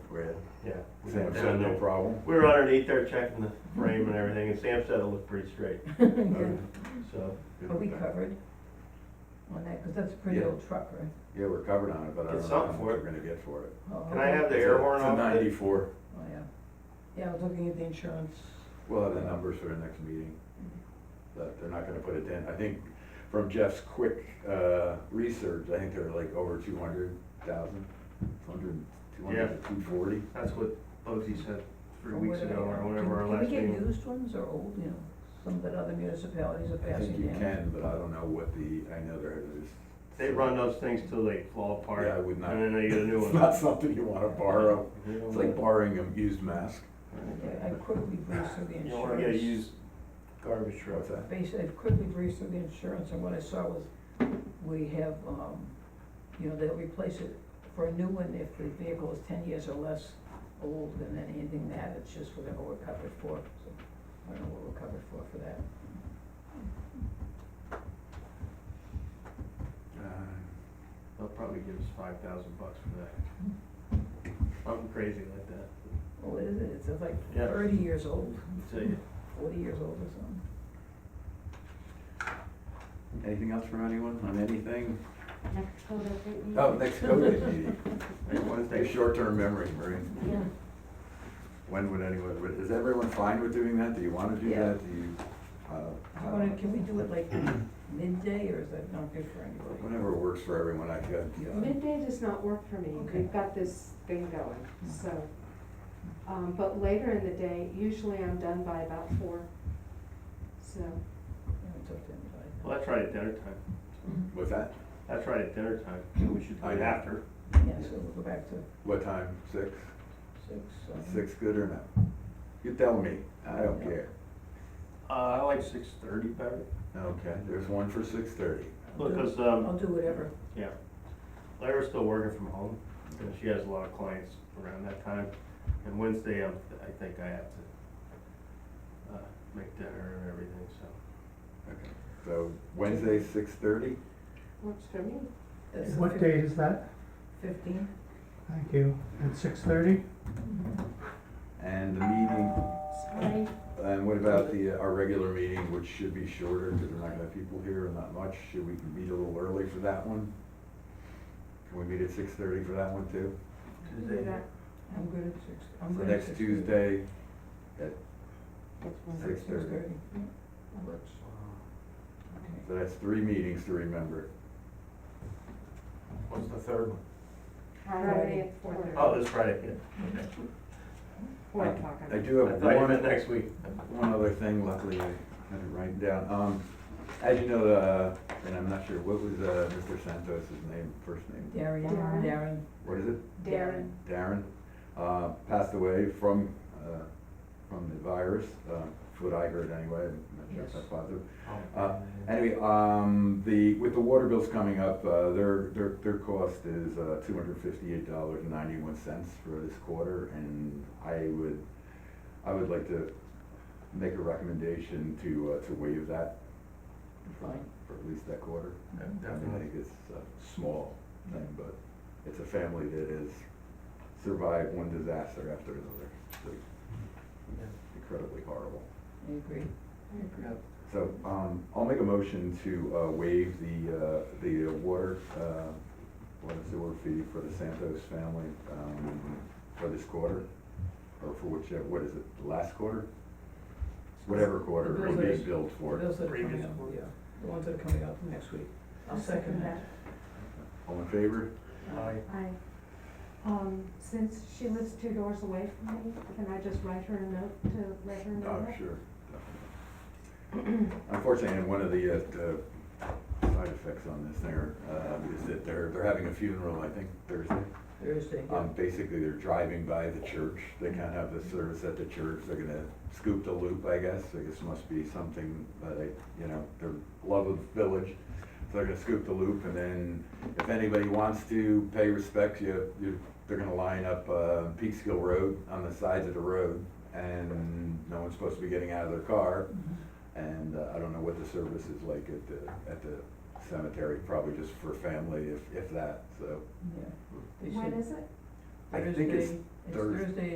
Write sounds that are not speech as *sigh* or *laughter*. Sam said no problem. We were underneath there checking the frame and everything, and Sam said it looked pretty straight, Okay, Good. so. good Are we with that. covered on that? Because that's a pretty Yeah. old truck, right? Yeah, we're covered on it, but I It's don't know how up much for we're it. gonna get for it. Oh, Can I have the It's a- air horn off? It's a ninety-four. Oh, yeah. Yeah, I was looking at the insurance. We'll have the numbers for the next meeting, but they're not gonna put it in. I think from Jeff's quick, uh, research, I think they're like over two hundred thousand, two hundred, two hundred, two forty. That's what Bugsy said three Or weeks what ago, are- or can- whenever our last Can we meeting. get used ones or old, you know, some that other municipalities are I think passing you down? can, but I don't know what the, I know there is. They run those things till they fall apart, Yeah, I and would not. then they get a new It's one. *laughs* Mm-hmm. not something you wanna borrow. You don't It's like wanna- borrowing a used mask. Okay, I quickly breezed through the You insurance. don't wanna get a used garbage truck. What's that? Basically, I quickly breezed through the insurance, and what I saw was, we have, um, you know, they'll replace it for a new one if the vehicle is ten years or less old, and then anything that, it's just whatever we're covered for, so, I don't know what we're covered for for that. Uh, They'll probably give us five thousand bucks for that. Something crazy like that, Well, Oh, what is it, it's like Yeah. thirty years old, I'll tell you. forty years old or something. Anything else from anyone on anything? Next photo, right? Oh, next COVID meeting. Like Wednesday. Your short-term memory, Marie. Yeah. When would anyone, would- is everyone fine with doing that? Do you want to do Yeah. that? Do you, I uh, wanna, can we do it *clears throat* like midday, or is that not good for anybody? whenever works for everyone, I could. yeah. Midday does not work for me. Okay. Mm-hmm. We've got this thing going, so. Um, but later in the day, usually I'm done by about four. So, Yeah, It's up to anybody. Well, that's right at dinner time, What's that? that's right at dinner time, so we should do it I- after. Yeah, so we'll go back to What time? Six? six, um, Six good or no? You tell me. I don't care. Uh, I like six thirty better, Okay, there's one for six thirty. I'll do- because, um, I'll do whatever. Yeah. Lyra's still working from home, and she has a lot of clients around that time. And Wednesday, I'm, I think I have to, uh, make dinner and everything, so. Okay. So Wednesday, six thirty? works for me. That's the What day is that? Fifteen? Thank you. At six thirty? Mm-hmm. And the meeting, Sorry. and what about the, uh, our regular meeting, which should be shorter because we're not gonna have people here and not much? Should we meet a little early for that one? Can we meet at six thirty for that one too? we can do that. I'm good at six. I'm So good at next 6:30. Tuesday, Six six thirty. thirty, yeah, that works. Okay. So that's three meetings to remember. What's the third one? Friday at four thirty. Oh, this Friday, Four I- o'clock. I I mean. do yeah. I have thought you meant one, next week. one other thing, luckily I had it written down. Um, as you know, uh, and I'm not sure, what was, uh, Mr. Santos's name, first name? Darren, Darren. Darren. What is it? Darren, Darren, uh, passed away from, uh, from the virus, uh, what I heard anyway, I'm not sure if that's Yes. positive. Oh, Uh, Anyway, um, the, with the water bills coming up, uh, their, their, their cost is, uh, two hundred fifty-eight dollars and ninety-one cents for this quarter, and I would, I would like to make a recommendation to, uh, to waive that Fine. for at least that quarter. Yeah, I mean, I think it's a small thing, but it's a family that has survived one disaster after another. It's incredibly horrible. I agree. Yeah. So, um, I'll make a motion to, uh, waive the, uh, the water, uh, water sewer fee for the Santos family, um, for this quarter, or for whichever, what is it, the last quarter? Whatever quarter it Bills is are- billed The for. bills that are coming previous up, board. yeah, the ones that are coming up next week. I'll second that. All in favor? Aye. I, um, since she lives two doors away from me, can I just write her a note to let her know Oh, that? sure. *coughs* Unfortunately, and one of the, uh, the side effects on this thing are, uh, is that they're, they're having a funeral, I think Thursday. Thursday, yeah. Um, basically, they're driving by the church, they can't have the service at the church, they're gonna scoop the loop, I guess, I guess must be something, that they, you know, their love of village. So they're gonna scoop the loop, and then if anybody wants to pay respects, you, you, they're gonna line up, uh, Peekskill Road on the sides of the road, and no one's supposed to be getting out of their car, Mhm. and uh, I don't know what the service is like at the, at the cemetery, probably just for family, if, if that, so. Yeah. They When said is it? I think it's Thursday, it's Thurs- Thursday